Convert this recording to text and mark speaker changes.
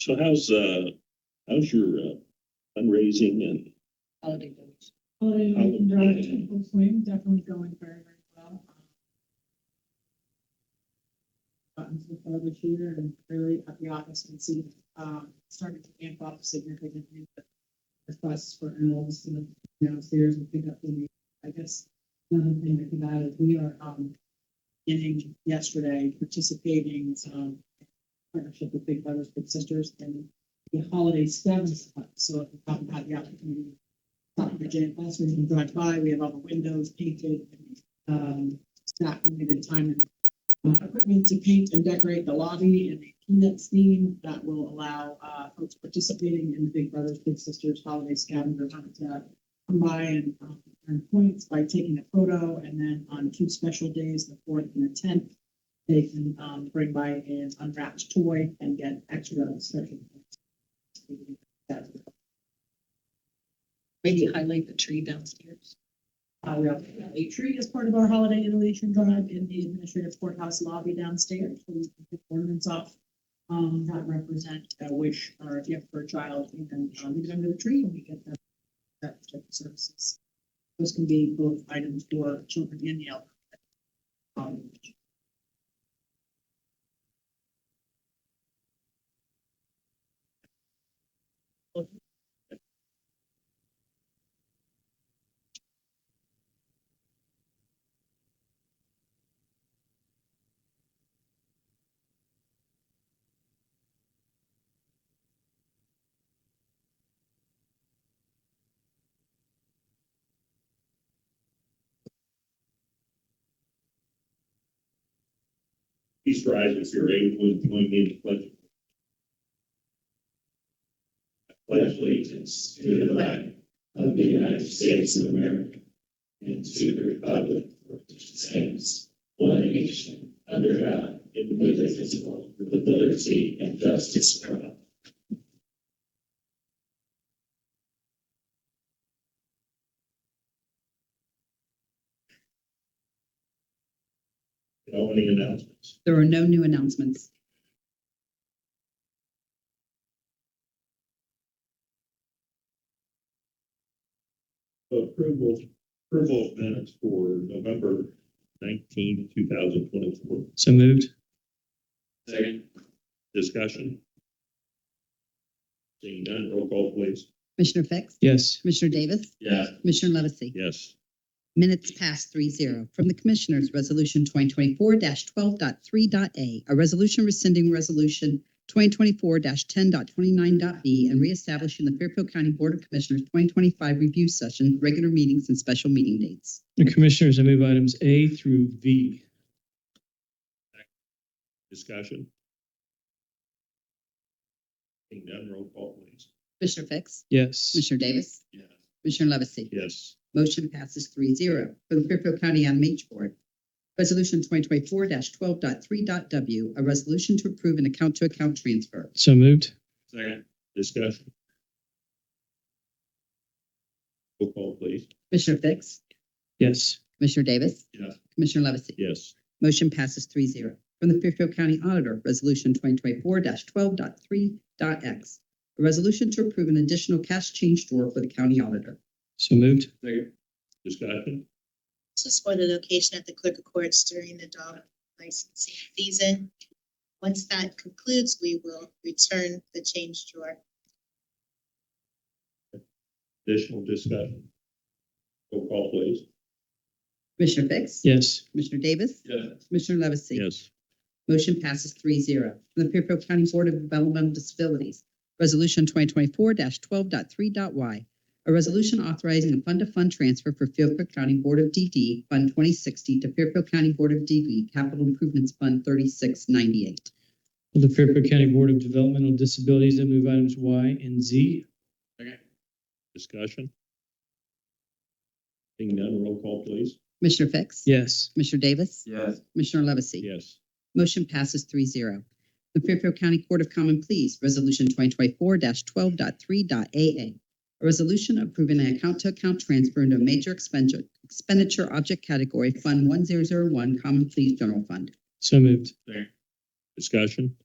Speaker 1: So how's, uh, how's your uh, fundraising and
Speaker 2: holiday village.
Speaker 3: Holiday
Speaker 1: Holiday
Speaker 3: Inn Drive
Speaker 1: Inn.
Speaker 3: in full swing, definitely going very, very well. Um, Gotten so far this year and really at the office and see, um, started to amp up significantly. the- The process for enrolls to the uh, downstairs and pick up the, I guess, uh, another thing I think about is we are, um, beginning yesterday, participating, um, partnership with Big Brothers Big Sisters and uh, the holiday sevens, club. so if you haven't had the opportunity top of the gym, also you can drive by, we have all the windows painted, um, staff needed time and uh, equipment to paint and decorate the lobby and the peanut theme that will allow, uh, folks participating in the Big Brothers Big Sisters Holiday Scavenger Hunt to come by and, um, earn points by taking a photo, and then on two special days, the fourth and the tenth, they can, um, bring by an unwrapped toy and get extra special. points. That's
Speaker 2: Maybe highlight the tree downstairs.
Speaker 3: Uh, we also have a tree as part of our holiday innovation drive in the administrative courthouse lobby downstairs. So we can pick Ornaments off, um, that represent a wish or a gift for a child and then, um, leave it under the tree and we get that, that type of services. Those can be both items for children and the elderly. Um,
Speaker 1: please rise if you're able to join me in the pledge? I Pledge allegiance to the flag of the United States of America and to the republic for which it stands, one nation, under God, indivisible, with liberty and justice for all. No any announcements?
Speaker 2: There are no new announcements.
Speaker 1: Approval, approval of minutes for November nineteenth, two thousand twenty-four.
Speaker 4: So moved.
Speaker 1: Second. Discussion. Seeing none, roll call please.
Speaker 5: Commissioner Fix?
Speaker 4: Yes.
Speaker 5: Commissioner Davis?
Speaker 1: Yeah.
Speaker 5: Commissioner Levesey?
Speaker 1: Yes.
Speaker 5: Minutes past three zero. From the Commissioners, Resolution twenty twenty-four 123a a resolution rescinding Resolution twenty twenty-four 1029b and reestablishing the Fairfield County Board of Commissioners twenty twenty-five review session, regular meetings and special meeting dates.
Speaker 4: Commissioners, I move items A through V.
Speaker 1: Discussion. Seeing none, roll call please.
Speaker 5: Commissioner Fix?
Speaker 4: Yes.
Speaker 5: Commissioner Davis?
Speaker 1: Yeah.
Speaker 5: Commissioner Levesey?
Speaker 1: Yes.
Speaker 5: Motion passes three zero. For the Fairfield County MH Board, Resolution twenty twenty-four 123w a resolution to approve an account-to-account transfer.
Speaker 4: So moved.
Speaker 1: Second. Discussion. Roll call please.
Speaker 5: Commissioner Fix?
Speaker 4: Yes.
Speaker 5: Commissioner Davis?
Speaker 1: Yes.
Speaker 5: Commissioner Levesey?
Speaker 1: Yes.
Speaker 5: Motion passes three zero. From the Fairfield County Auditor, Resolution twenty twenty-four 123x A resolution to approve an additional cash change drawer for the county auditor.
Speaker 4: So moved.
Speaker 1: Second. Discussion.
Speaker 6: This is for the location at the clerk of courts during the dog licensing season. Once that concludes, we will return the change drawer.
Speaker 1: Additional discussion. Roll call please.
Speaker 5: Commissioner Fix?
Speaker 4: Yes.
Speaker 5: Commissioner Davis?
Speaker 1: Yes.
Speaker 5: Commissioner Levesey?
Speaker 1: Yes.
Speaker 5: Motion passes three zero. From the Fairfield County Board of Developmental Disabilities, Resolution twenty twenty-four 123y A resolution authorizing a fund-to-fund transfer for Fairfield County Board of DD Fund twenty sixty to Fairfield County Board of DD Capital Improvements Fund thirty-six ninety-eight.
Speaker 4: For the Fairfield County Board of Developmental Disabilities, I move items Y and Z.
Speaker 1: Discussion. Seeing none, roll call please.
Speaker 5: Commissioner Fix?
Speaker 4: Yes.
Speaker 5: Commissioner Davis?
Speaker 1: Yes.
Speaker 5: Commissioner Levesey?
Speaker 1: Yes.
Speaker 5: Motion passes three zero. The Fairfield County Court of Common Pleas, Resolution twenty twenty-four 123aa A resolution approving an account-to-account transfer into a major expenditure, expenditure object category, Fund one zero zero one, Common Pleas General Fund.
Speaker 4: So moved.
Speaker 1: Discussion.